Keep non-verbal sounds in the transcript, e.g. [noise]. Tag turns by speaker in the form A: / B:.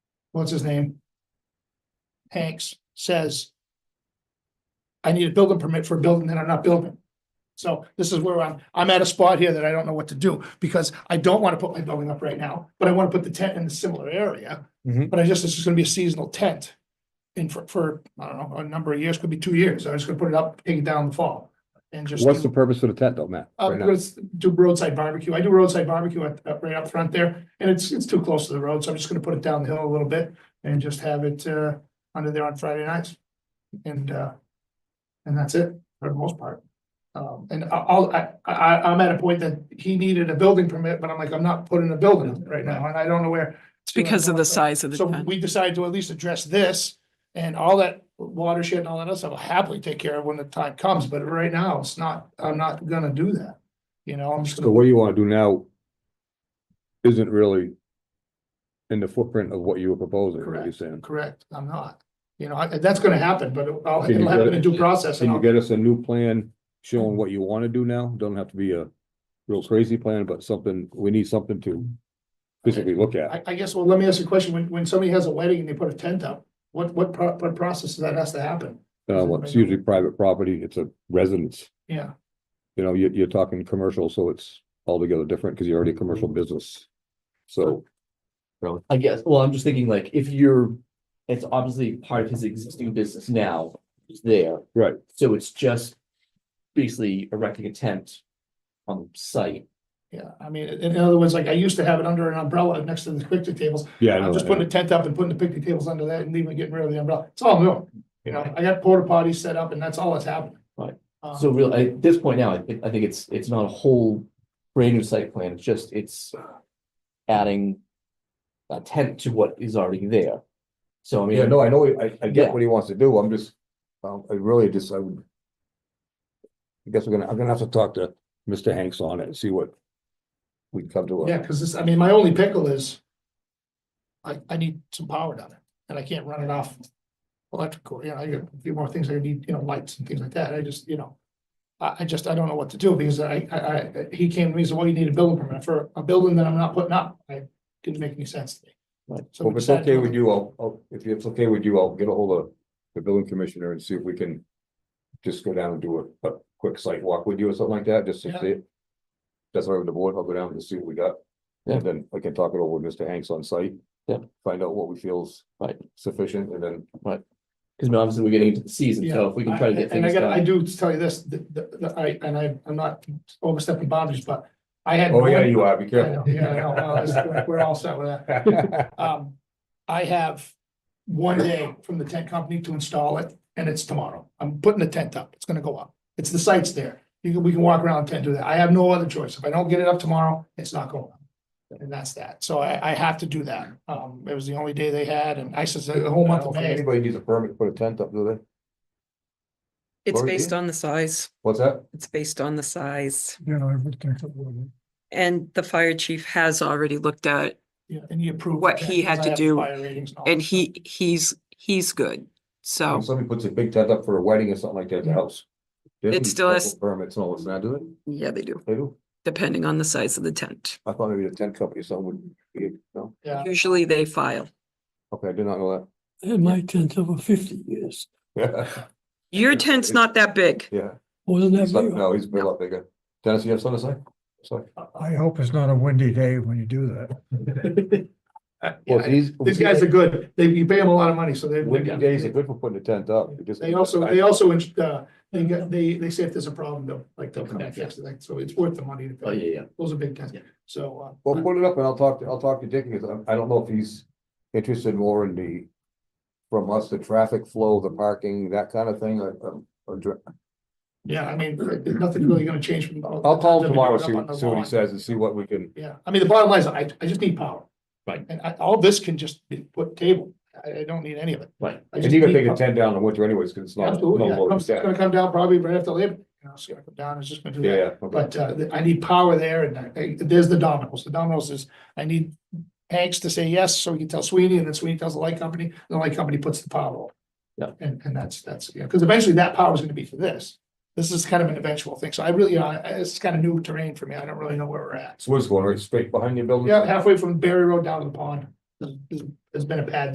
A: what's his name? Hanks says. I need a building permit for a building that I'm not building. So this is where I'm, I'm at a spot here that I don't know what to do, because I don't wanna put my building up right now, but I wanna put the tent in a similar area.
B: Mhm.
A: But I just, this is gonna be a seasonal tent. And for, for, I don't know, a number of years, could be two years, I'm just gonna put it up, take it down in the fall. And just.
B: What's the purpose of the tent though, Matt?
A: Uh,
B: right now?
A: because do roadside barbecue. I do roadside barbecue at, up right up front there, and it's, it's too close to the road, so I'm just gonna put it down the hill a little bit and just have it, uh, under there on Friday nights. And, uh, and that's it for the most part. Um, and I- I'll, I, I, I'm at a point that he needed a building permit, but I'm like, I'm not putting a building up right now, and I don't know where.
C: It's because of the size of the
A: So
C: tent.
A: we decided to at least address this and all that watershed and all that other stuff, I'll happily take care of when the time comes, but right now, it's not, I'm not gonna do that. You know, I'm just
B: So
A: gonna,
B: what you wanna do now? Isn't really. In the footprint of what you were proposing, what you're
A: Correct.
B: saying.
A: correct, I'm not, you know, I- that's gonna happen, but it'll I'll-
B: Can you
A: it'll happen
B: get it-
A: in due process. and
B: Can you
A: I'll-
B: get us a new plan showing what you wanna do now? Don't have to be a real crazy plan, but something, we need something to. Physically look at.
A: I, I guess, well, let me ask you a question, when, when somebody has a wedding and they put a tent up, what, what, pro- what process does that has to happen?
B: Uh, well, it's usually private property, it's a residence.
A: Yeah,
B: You know, you're, you're talking commercial, so it's altogether different because you're already a commercial business. So,
D: I guess, well, I'm just thinking like if you're, it's obviously part of his existing business now, it's there,
B: right,
D: so it's just. Basically erecting a tent on site.
A: yeah, I mean, in in other words, like, I used to have it under an umbrella next to the picnic tables,
B: yeah. I know
A: I'm just
B: that.
A: putting a tent up and putting the picnic tables under that and leaving, getting rid of the umbrella, it's all new, you know, I got porta potties set up and that's all that's happening.
D: Right.
A: Um,
D: So real, at this point now, I, thi- I think it's, it's not a whole brand new site plan, it's just, it's adding. A tent to what is already there. So I
B: Yeah,
D: mean,
B: no, I know, I, I get
D: Yeah.
B: what he wants to do, I'm just, um, I really just, I would. I guess we're gonna, I'm gonna have to talk to Mr. Hanks on it, and see what. We can come to. a-
A: Yeah, cause this, I mean, my only pickle is. I, I need some power down there and I can't run it off. Electrical, you know, I got a few more things I need, you know, lights and things like that. I just, you know. I, I just, I don't know what to do because I, I, I, he came to me and said, well, you need a building permit for a building that I'm not putting up. I, didn't make any sense to me.
D: Right.
A: So
B: Well,
A: we
B: If it's
A: decided
B: okay
A: to-
B: with you, I'll, I'll, if it's okay with you, I'll get a hold of the building commissioner and see if we can. Just go down and do a, a quick site walk with you or something like that, just to
A: Yeah.
B: see it. That's all right with the board, I'll go down and see what we got.
D: Yeah.
B: And then I can talk it over with Mr. Hanks on site.
D: Yeah.
B: Find out what we feel's.
D: Right.
B: Sufficient, and then
D: because obviously we're getting into the season, so if we can try to
A: Yeah,
D: get
A: And I
D: things
A: got, I
D: done.
A: do tell you this, the, the, the- I, and I, I'm not overstepping boundaries, but I had.
B: Oh,
A: no
B: yeah,
A: idea-
B: you are, be
A: I know,
B: careful.
A: Yeah, I know, well,
B: [laughs]
A: it's- we're all set with that. Um, I have one day from the tent company to install it, and it's tomorrow. I'm putting the tent up. It's gonna go up. It's the site's there. You can, we can walk around the tent, do that. I have no other choice. If I don't get it up tomorrow, it's not going up. And that's that. So I, I have to do that. Um, it was the only day they had, and I said, the whole
B: I
A: month
B: don't
A: of
B: think
A: May.
B: Anybody needs a permit to put a tent up, do they?
E: It's
B: Or
E: based
B: you-
E: on the size.
B: What's that?
E: It's based on the size.
A: Yeah,
E: And the fire chief has already looked at, it,
A: and he approved. the
E: What
A: tent,
E: he had
A: 'cause I
E: to
A: have
E: do,
A: fire ratings all
E: and
A: that.
E: he, he's, he's good. So
B: If somebody puts a big tent up for a wedding or something like that, at the house. they
E: It
B: need
E: still
B: special
E: has-
B: Permits and all this, now do they?
E: yeah, they do,
B: They do?
E: depending on the size of the tent.
B: I thought maybe the tent company or something would, be- no?
A: Yeah,
E: Usually they file.
B: Okay, I did not know
F: I had my tent over fifty years,
B: that. [laughs]
E: Your
B: Yeah,
E: tent's
B: it's-
E: not that big.
B: Yeah,
F: wasn't that
B: It's not-
F: big?
B: no, he's a lot bigger. Dennis, you have something to say? Sorry.
G: I hope it's not a windy day when you do that.
A: [laughs]
B: Uh,
A: Yeah,
B: these.
A: these guys are good. They, you pay them a lot of money, so they.
B: Windy days are good for putting a tent up. because-
A: They also, they also, uh, they got, they, they say if there's a problem, they'll, like, they'll come back, yes, like, so it's worth the money. to pay.
D: Oh, yeah, yeah,
A: Those are big guys,
D: Yeah.
A: so, uh,
B: Well, put it up and I'll talk, to I'll talk to Dick because I- I don't know if he's interested more in the. From us, the traffic flow, the parking, that kind of thing, or- or- or dr-
A: yeah, I mean, nothing's really gonna change from.
B: I'll call him tomorrow, see,
A: E Up on the
B: see what he
A: lawn.
B: says and see what we can.
A: Yeah, I mean, the bottom line is, I, I just need power.
D: Right.
A: And I, all this can just be put table, I, I don't need any of it.
D: right.
A: I
B: And
A: just
B: you're gonna
A: need
B: take a
A: power.
B: tent down in the winter anyways, because it's not.
A: Absolutely,
B: no
A: yeah,
B: load
A: it's
B: set.
A: gonna come down probably right after Labor, Day, you know, it's gonna come down, it's just gonna do
B: Yeah,
A: that.
B: yeah, okay.
A: But uh, I need power there and I- I, there's the dominoes. The dominoes is, I need Hanks to say yes, so we can tell Sweeney and then Sweeney tells the light company, and the light company puts the power on.
D: Yeah.
A: And, and that's, that's, yeah, because eventually that power is gonna be for this. This is kind of an eventual thing. So I really, I, I- it's kind of new terrain for me. I don't really know where we're at.
B: So what's going, right straight behind your building?
A: Yeah, halfway from Berry Road down to the pond, there's- there's there's been a pad